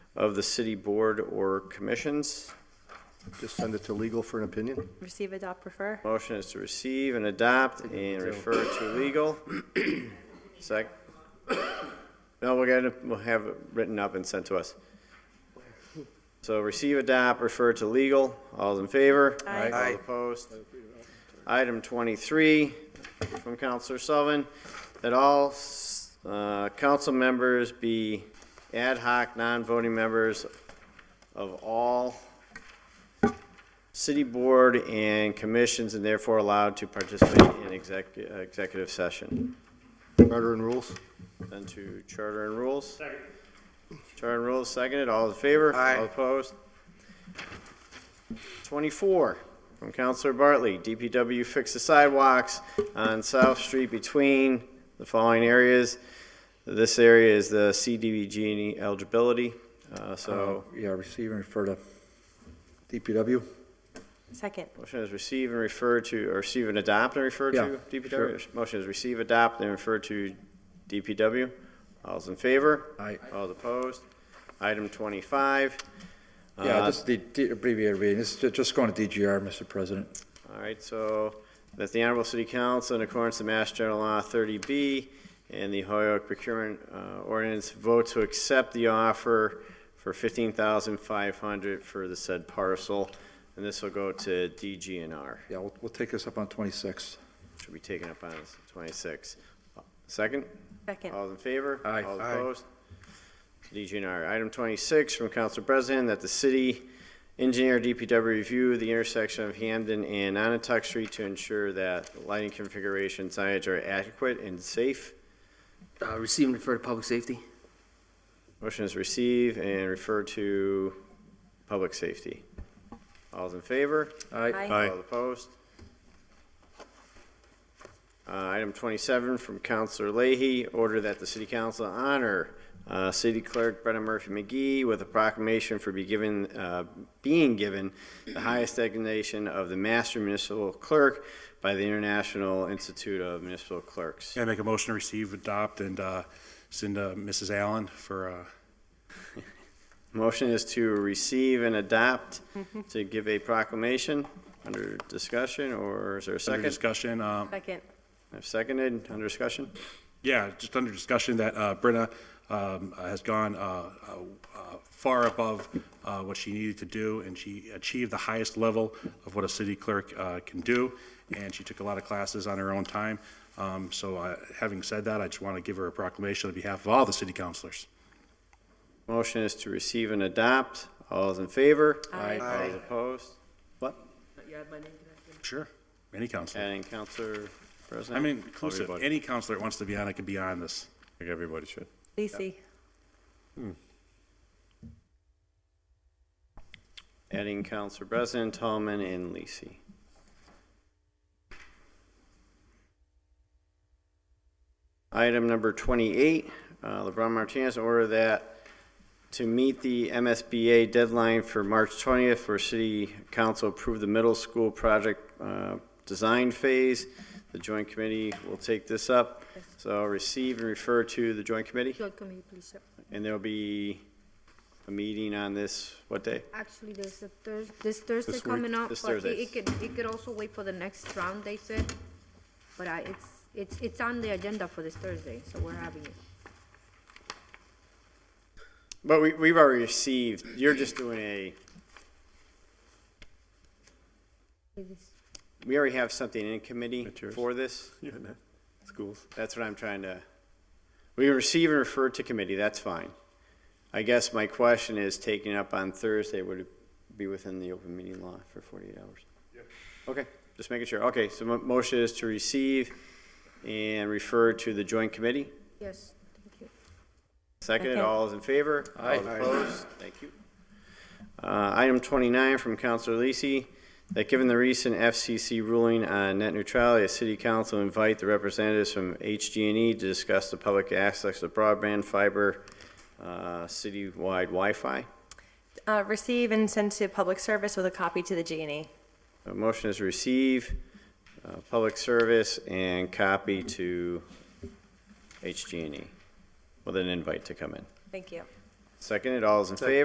of the city board or commissions. Just send it to legal for an opinion? Receive, adopt, refer. Motion is to receive and adopt and refer to legal. Sec. No, we're gonna, we'll have it written up and sent to us. So receive, adopt, refer to legal. All's in favor? Aye. All opposed? Item twenty-three from Counselor Sullivan, that all, uh, council members be ad hoc, non-voting members of all city board and commissions and therefore allowed to participate in exec, executive session. Charter and rules? Then to charter and rules. Second. Charter and rules, seconded, all in favor? Aye. All opposed? Twenty-four, from Counselor Bartley, DPW fix the sidewalks on South Street between the following areas. This area is the CDBG E eligibility, uh, so Yeah, receive and refer to DPW. Second. Motion is receive and refer to, or receive and adopt and refer Yeah, to DPW? Motion is receive, adopt, and refer to DPW. All's in favor? Aye. All opposed? Item twenty-five. Yeah, Uh, just the the abbreviated reading, it's ju- just going to DGR, Mr. President. All right, so that the Honorable City Council, in accordance with Mass General Law 30B and the Hoyoke Procurement uh, Ordinance, vote to accept the offer for 15500 for the said parcel, and this will go to DGNR. Yeah, we'll, we'll take this up on 26th. Should be taken up on twenty-six. Second? Second. All in favor? Aye. All Aye. opposed? DGNR. Item twenty-six from Council President, that the city engineer DPW review the intersection of Hamden and Onatuck Street to ensure that lighting configuration signage are adequate and safe. Uh, receive and refer to public safety. Motion is receive and refer to public safety. All's in favor? Aye. Aye. All opposed? Uh, Item 27 from Counselor Leahy, order that the city council honor uh, City Clerk Brenna Murphy McGee with a proclamation for be given, uh, being given the highest designation of the Master Municipal Clerk by the International Institute of Municipal Clerks. Yeah, make a motion to receive, adopt, and uh, send to Mrs. Allen for, uh, Motion is to receive and adopt to give a proclamation under discussion, or is there a under second? discussion. uh, Second. I've Seconded, under discussion? Yeah, just under discussion that uh, Brenna um, has gone uh, uh, uh, far above uh, what she needed to do, and she achieved the highest level of what a city clerk uh, can do, and she took a lot of classes on her own time. Um, So uh, having said that, I just want to give her a proclamation on behalf of all the city councilors. Motion is to receive and adopt. All is in favor? Aye. All is opposed? What? Sure. Any counselor. Adding Counselor President? I mean, inclusive, Everybody. any counselor that wants to be on it can be on this. I think everybody should. Lisi. Adding Counselor President, Tallman, and Lisi. Item number 28, uh, LeBron Martinez, order that to meet the MSBA deadline for March 20th for City Council approve the middle school project uh, design phase. The Joint Committee will take this up. So receive and refer to the Joint Committee, Joint committee, please, sir. and there'll be a meeting on this, what day? Actually, there's a Thursday, this Thursday This week? coming up, This but it- Thursday. it could, it could also wait for the next round, they said. But I, it's, it's, it's on the agenda for this Thursday, so we're having it. But we, we've already received, you're just doing a, It is- we already have something in committee Materials. for this. Yeah, no, schools. That's what I'm trying to, we receive and refer to committee, that's fine. I guess my question is, taking up on Thursday, would it be within the open meeting law for 48 hours? Okay, just making sure. Okay, so mo- motion is to receive and refer to the joint committee. Yes, thank you. Seconded, Second. all is in favor? Aye. All opposed? Thank you. Uh, Item 29 from Counselor Lisi, that given the recent FCC ruling on net neutrality, a city council invite the representatives from HG&E E to discuss the public access to broadband fiber, uh, citywide Wi-Fi. Uh, receive and send to public service with a copy to the G and E. A motion is receive, uh, public service, and copy to HG&E E with an invite to come in. Thank you. Seconded, all is in favor?